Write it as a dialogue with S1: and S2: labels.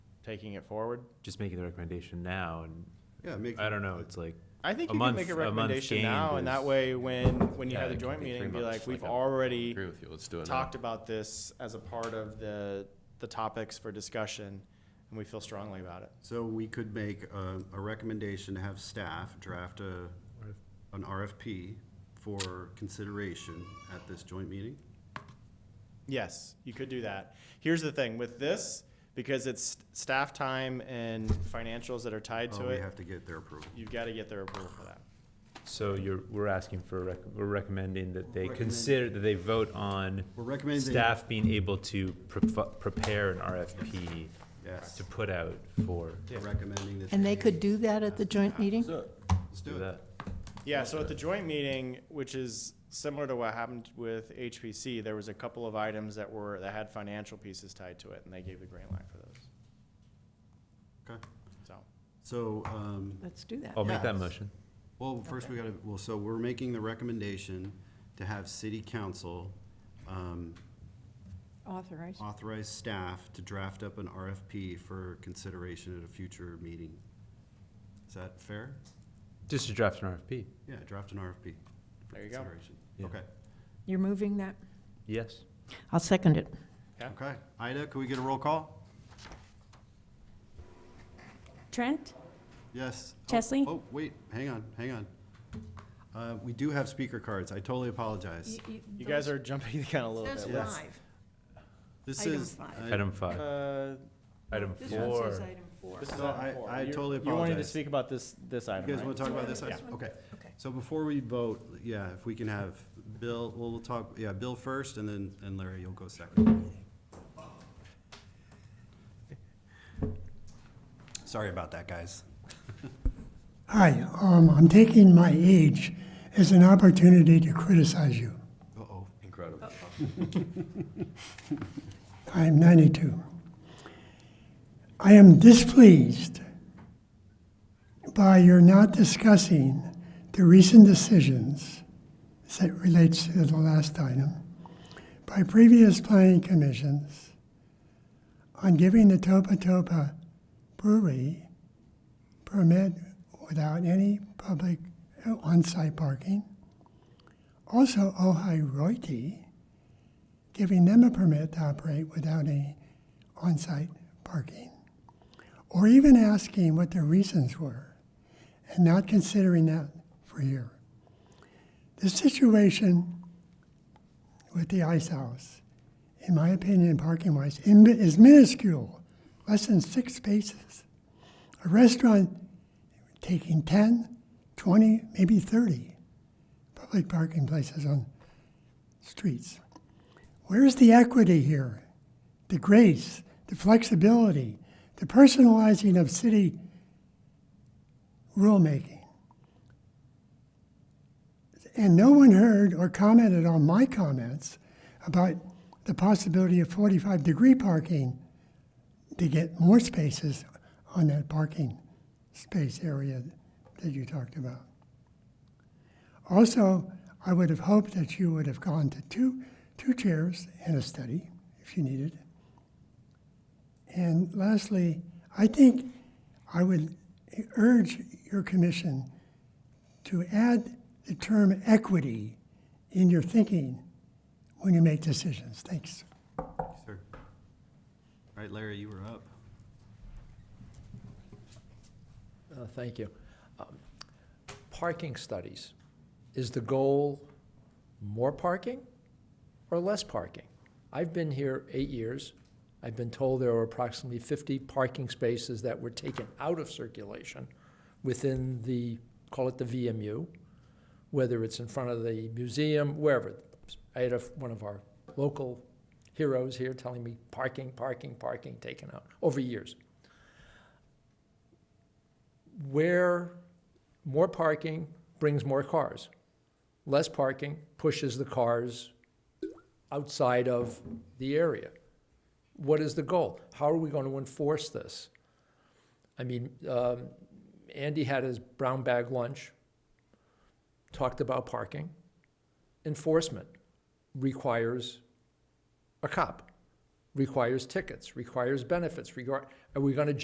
S1: taking it forward?
S2: Just making the recommendation now, and
S3: Yeah, make.
S2: I don't know, it's like,
S1: I think
S2: A
S1: you can
S2: month-
S1: make a
S2: a month
S1: recommendation
S2: gained
S1: now, and that
S2: is-
S1: way, when, when you
S4: Yeah,
S1: have the
S4: it could
S1: joint
S4: be
S1: meeting,
S4: three
S1: be
S4: months,
S1: like, we've
S4: like a-
S1: already
S4: Agree with you, let's do
S2: uh,
S4: it now.
S1: talked about this as a part of the, the topics for discussion, and we feel strongly about it.
S3: So we could make a, a recommendation to have staff draft a, an RFP for consideration at this joint meeting?
S1: Yes, you could do that. Here's the thing, with this, because it's staff time and financials that are tied to
S3: Oh, we
S1: it,
S3: have to get their approval.
S1: you've got to get their approval for that.
S2: so you're, we're asking for, a rec- we're recommending that they
S3: Recommend-
S2: consider, that they vote on
S3: We're recommending.
S2: staff being able to pref- prepare an RFP
S3: Yes,
S2: to put out for,
S3: we're recommending that.
S5: And they could do that at the joint meeting?
S3: Let's
S2: do
S3: do it.
S2: that.
S1: Yeah, so at the joint meeting, which is similar to what happened with HPC, there was a couple of items that were, that had financial pieces tied to it, and they gave the green light for those,
S3: Okay.
S1: so.
S3: So, um,
S5: Let's do
S1: oh.
S5: that.
S2: I'll make that
S3: Yes.
S2: motion.
S3: well, first we gotta, well, so we're making the recommendation to have city council, um,
S5: Authorize.
S3: authorize staff to draft up an RFP for consideration at a future meeting. Is that fair?
S2: Just to draft an RFP,
S3: Yeah, draft an RFP. for
S1: There you go.
S3: consideration.
S2: Yeah.
S3: Okay,
S5: You're moving that?
S2: yes?
S5: I'll second it.
S3: okay. Ida, can we get a roll call?
S6: Trent?
S3: Yes. Oh,
S6: Chesley?
S3: Oh, wait, hang on, hang on. Uh, we do have speaker cards. I totally apologize.
S1: You guys are jumping the gun a little
S5: There's
S1: bit.
S3: Yes.
S5: five.
S3: This
S5: Item
S3: is.
S5: five.
S3: I-
S2: Item five,
S1: Uh,
S2: item
S5: This one
S2: four.
S5: says item four.
S1: This is
S3: No,
S1: item
S3: I-
S1: four.
S3: I
S1: You-
S3: totally
S1: You wanted to
S3: apologize.
S1: speak about this, this
S3: You
S1: item,
S3: guys want
S1: right?
S3: to talk about this?
S5: Yeah.
S3: Okay.
S5: Okay.
S3: So before we vote, yeah, if we can have Bill, we'll we'll talk, yeah, Bill first and then, and Larry, you'll go second. Sorry about that, guys.
S7: Hi, um, I'm taking my age as an opportunity to criticize you.
S3: Uh-oh.
S4: Incredible.
S7: I'm 92. I am displeased by your not discussing the recent decisions as it relates to the last item by previous planning commissions on giving the Topa Topa Brewery permit without any public uh, on-site parking. Also, Ojai Royalty giving them a permit to operate without any on-site parking, or even asking what their reasons were, and not considering that for a year. The situation with the ice house, in my opinion, parking-wise, in- is minuscule, less than six spaces. A restaurant taking 10, 20, maybe 30 public parking places on streets. Where's the equity here? The grace, the flexibility, the personalizing of city rulemaking? And no one heard or commented on my comments about the possibility of 45 degree parking to get more spaces on that parking space area that you talked about. Also, I would have hoped that you would have gone to two, two chairs and a study if you needed. And lastly, I think I would urge your commission to add the term equity in your thinking when you make decisions. Thanks.
S3: Sir. All right, Larry, you were up.
S8: Uh, Thank you. Um, Parking studies. Is the goal more parking or less parking? I've been here eight years. I've been told there were approximately 50 parking spaces that were taken out of circulation within the, call it the VMU, whether it's in front of the museum, wherever. I had a, one of our local heroes here telling me parking, parking, parking taken out over years where more parking brings more cars. Less parking pushes the cars outside of the area. What is the goal? How are we going to enforce this? I mean, um, Andy had his brown bag lunch, talked about parking. Enforcement requires a cop, requires tickets, requires benefits. Regard, are we going to